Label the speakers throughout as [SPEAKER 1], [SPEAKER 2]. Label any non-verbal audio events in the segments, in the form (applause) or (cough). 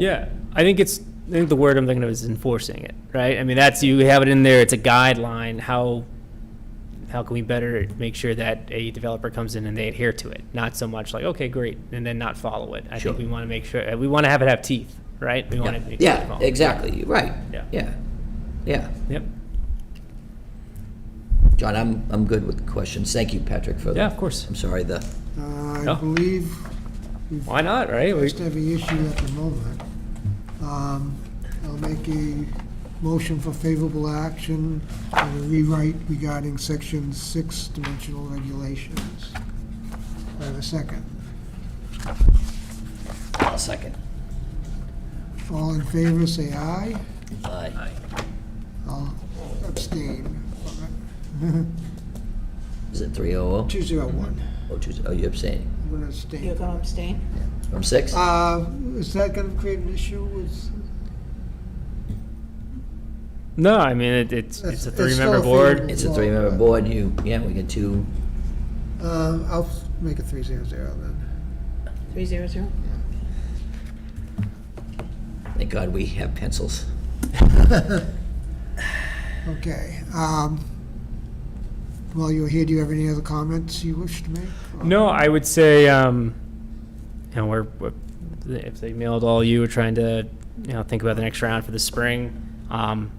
[SPEAKER 1] Yeah, I think it's, I think the word I'm thinking of is enforcing it, right? I mean, that's, you have it in there, it's a guideline, how, how can we better make sure that a developer comes in and they adhere to it? Not so much like, okay, great, and then not follow it. I
[SPEAKER 2] Sure.
[SPEAKER 1] think we want to make sure, we want to have it have teeth, right? We want it.
[SPEAKER 2] Yeah, exactly, You're right.
[SPEAKER 1] Yeah.
[SPEAKER 2] Yeah, yeah.
[SPEAKER 1] Yep,
[SPEAKER 2] John, I'm, I'm good with questions. Thank you, Patrick, for the.
[SPEAKER 1] yeah, of course.
[SPEAKER 2] I'm sorry, the,
[SPEAKER 3] Uh,
[SPEAKER 1] No.
[SPEAKER 3] I believe
[SPEAKER 1] Why not, right? We-
[SPEAKER 3] just every issue at the moment. Um, I'll make a motion for favorable action and a rewrite regarding section six dimensional regulations. I have a second.
[SPEAKER 2] I'll second.
[SPEAKER 3] All in favor, say aye.
[SPEAKER 2] Aye.
[SPEAKER 3] I'll abstain.
[SPEAKER 2] Is it 300?
[SPEAKER 3] Two zero one.
[SPEAKER 2] Oh, two- oh, you're abstaining.
[SPEAKER 3] I'm gonna
[SPEAKER 4] You're
[SPEAKER 3] abstain.
[SPEAKER 4] going to abstain?
[SPEAKER 2] From six?
[SPEAKER 3] Uh, is that gonna create an issue with?
[SPEAKER 1] No, I mean, it- it's,
[SPEAKER 3] It's-
[SPEAKER 1] it's a
[SPEAKER 3] it's still
[SPEAKER 1] three-member
[SPEAKER 3] a
[SPEAKER 1] board.
[SPEAKER 3] favorable.
[SPEAKER 2] It's a three-member board, you, yeah, we get two,
[SPEAKER 3] Uh, I'll make it three zero zero then.
[SPEAKER 4] 300?
[SPEAKER 2] thank God we have pencils.
[SPEAKER 3] Okay. um, While you're here, do you have any other comments you wish to make? Or-
[SPEAKER 1] No, I would say, um, you know, we're, we're- if they mailed all you, we're trying to, you know, think about the next round for the spring. Um,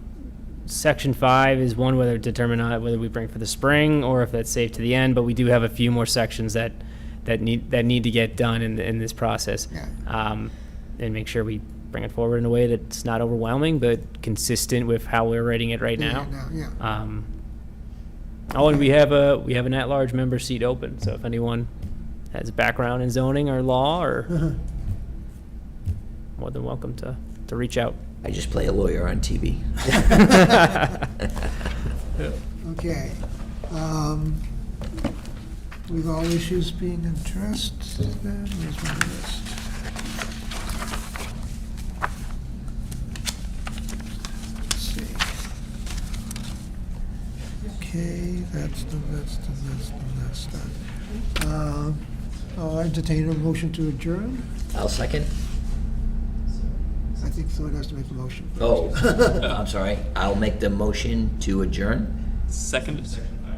[SPEAKER 1] Section five is one, whether determine not whether we bring for the spring or if that's safe to the end, but we do have a few more sections that, that need, that need to get done in, in this process.
[SPEAKER 3] Yeah.
[SPEAKER 1] Um, and make sure we bring it forward in a way that's not overwhelming, but consistent with how we're writing it right
[SPEAKER 3] Yeah,
[SPEAKER 1] now.
[SPEAKER 3] Yeah.
[SPEAKER 1] Um, oh, and we have a, we have an at-large member seat open, so if anyone has a background in zoning or law or, more than welcome to, to reach out. (laughs)
[SPEAKER 2] I just play a lawyer on TV.
[SPEAKER 3] Okay. um, With all issues being addressed, then, where's my list? Let's see. Okay, that's the list, and that's the list. uh, um, I'll entertain a motion to adjourn.
[SPEAKER 2] I'll second.
[SPEAKER 3] I think someone has to make a motion.
[SPEAKER 2] Oh, (laughs) I'm sorry, I'll make the motion to adjourn.
[SPEAKER 5] Second.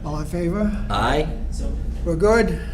[SPEAKER 3] All in favor?
[SPEAKER 2] Aye?
[SPEAKER 3] We're good?